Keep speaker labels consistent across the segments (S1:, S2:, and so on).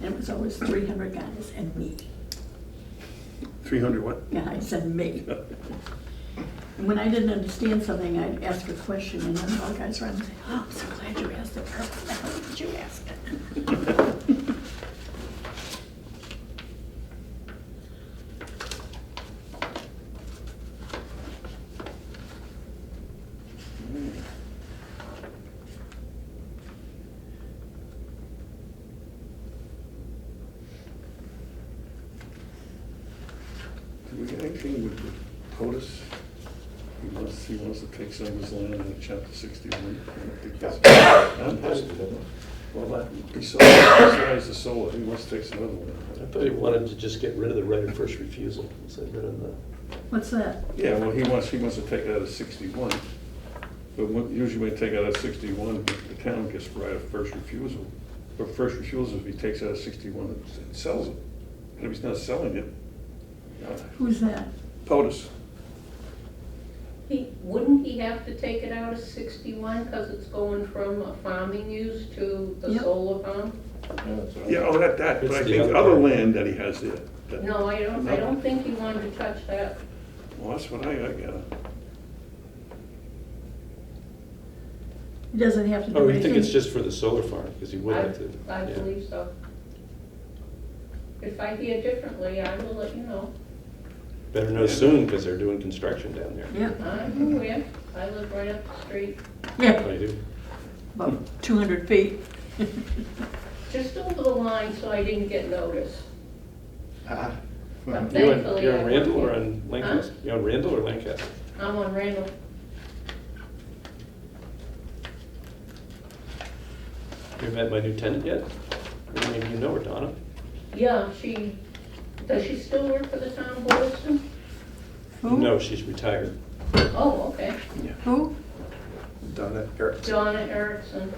S1: and it was always three hundred guys and me.
S2: Three hundred what?
S1: Yeah, I said me. And When I didn't understand something, I'd ask a question, and then all the guys around would say, oh, I'm so glad you asked it, Carol, Why the hell did you ask it?
S2: Do we get anything with the POTUS? He wants, he wants to take some of his land in chapter sixty-one. I don't think that's-
S3: I'm positive, isn't
S2: Well, that, besides, besides the solar, he wants to take some other
S3: it? I
S2: land.
S3: thought he wanted to just get rid of the right of first refusal, is that in the,
S1: What's that?
S2: Yeah, well, he wants, he wants to take it out of sixty-one. But when- usually when you take it out of sixty-one, the town gets right of first refusal. But first refusal, if he takes out of sixty-one and sells it. And if he's not selling it, uh,
S1: Who's that?
S2: POTUS.
S4: He, wouldn't he have to take it out of sixty-one, because it's going from a farming use to the
S1: Yep.
S4: solar farm?
S2: Yeah, oh, that, that, but
S3: It's
S2: I
S3: the
S2: think
S3: other
S2: other
S3: way.
S2: land that he has there. that-
S4: No, I don't,
S2: No.
S4: I don't think he wanted to touch that.
S2: Well, that's what I, I got.
S1: He doesn't have to do
S3: oh,
S1: anything.
S3: you think it's just for the solar farm, because he would
S4: I-
S3: have to.
S4: I
S3: yeah.
S4: believe so. If I hear differently, I will let you know.
S3: Better know soon, because they're doing construction down there.
S1: Yeah,
S4: I'm aware, I live right up the street,
S1: yeah,
S3: I Oh, do.
S1: about two hundred feet.
S4: just over the line, so I didn't get noticed.
S5: Ah,
S4: But
S3: You on-
S4: thankfully,
S3: You're on
S4: I-
S3: Randall or on Lancaster?
S4: Huh?
S3: You on Randall or Lancaster?
S4: I'm on Randall.
S3: You met my new tenant yet? Or Maybe you know her, Donna?
S4: Yeah, she, does she still work for the town of Boylston?
S1: Who?
S3: No, she's retired.
S4: Oh, okay.
S1: Who?
S5: Donna, Eric.
S4: Donna Erickson.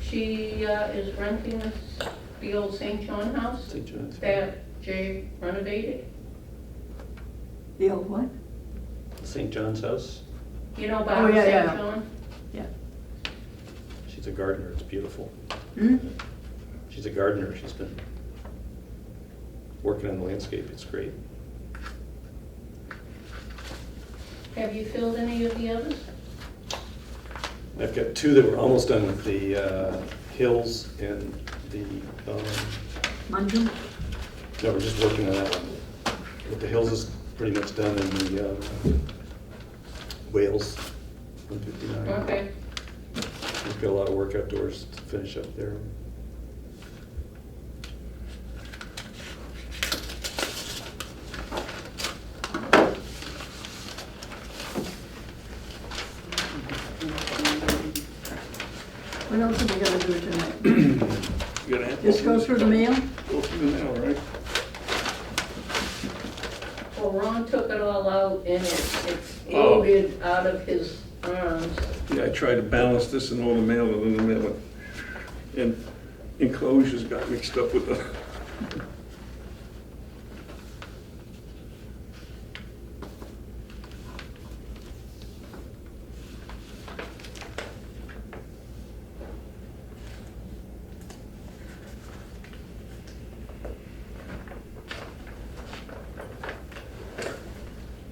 S4: She uh, is renting this, the old St. John house
S3: St. John's.
S4: that Jay renovated.
S1: The old what?
S3: St. John's House.
S4: You know
S1: Oh,
S4: about
S1: yeah,
S4: St.
S1: yeah.
S4: John?
S1: Yeah.
S3: She's a gardener. It's beautiful.
S1: Hmm?
S3: She's a gardener. She's been working on the landscape. It's great.
S4: Have you filled any of the others?
S3: I've got two that were almost done with the uh, hills and the, um,
S1: Mandu?
S3: no, we're just working on that one. But the hills is pretty much done and the um, Wales, 159.
S4: Okay.
S3: We've got a lot of work outdoors to finish up there.
S1: What else are we gonna do tonight?
S2: You got ample?
S1: Just go through the mail?
S2: Go through now, right?
S4: Well, Ron took it all out and it
S2: Oh.
S4: exploded out of his arms.
S2: Yeah, I tried to balance this in all the mail and then the mail, went- and enclosures got mixed up with the.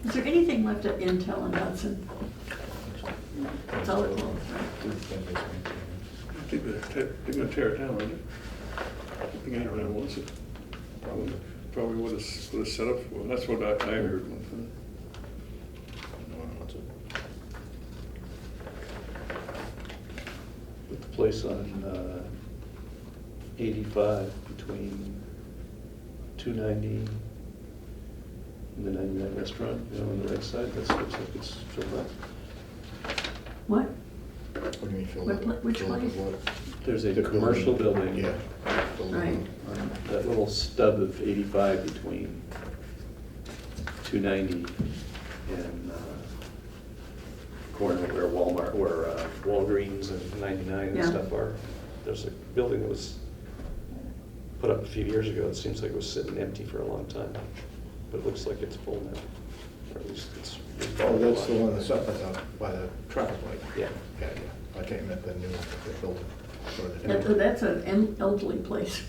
S1: Is there anything left at Intel and Hudson? That's all it was,
S2: They're gonna tear- they're gonna tear it down, aren't they? I think anyone wants it. Probably, probably what it's, what it's set up for. That's what I, I heard one time.
S3: With the place on uh, 85 between 290 and the 99 restaurant, you know, on the right side, that looks like it's filled up.
S1: What?
S5: What do you mean filled
S1: What pla-
S5: up?
S1: which
S5: Filled up with
S1: place?
S5: what?
S3: There's a
S5: The building.
S3: commercial building.
S5: Yeah. Filled up.
S1: Right.
S3: That little stub of 85 between 290 and uh, corner where Walmart, where uh, Walgreens and 99 and
S1: Yeah.
S3: stuff are. There's a building that was put up a few years ago. It seems like it was sitting empty for a long time, but it looks like it's full now. Or at least it's.
S5: Oh, that's the one that's up, that's up by the traffic light.
S3: Yeah.
S5: Yeah, yeah. I came at the new, the building. or the
S1: That-
S5: new-
S1: That's an elderly place.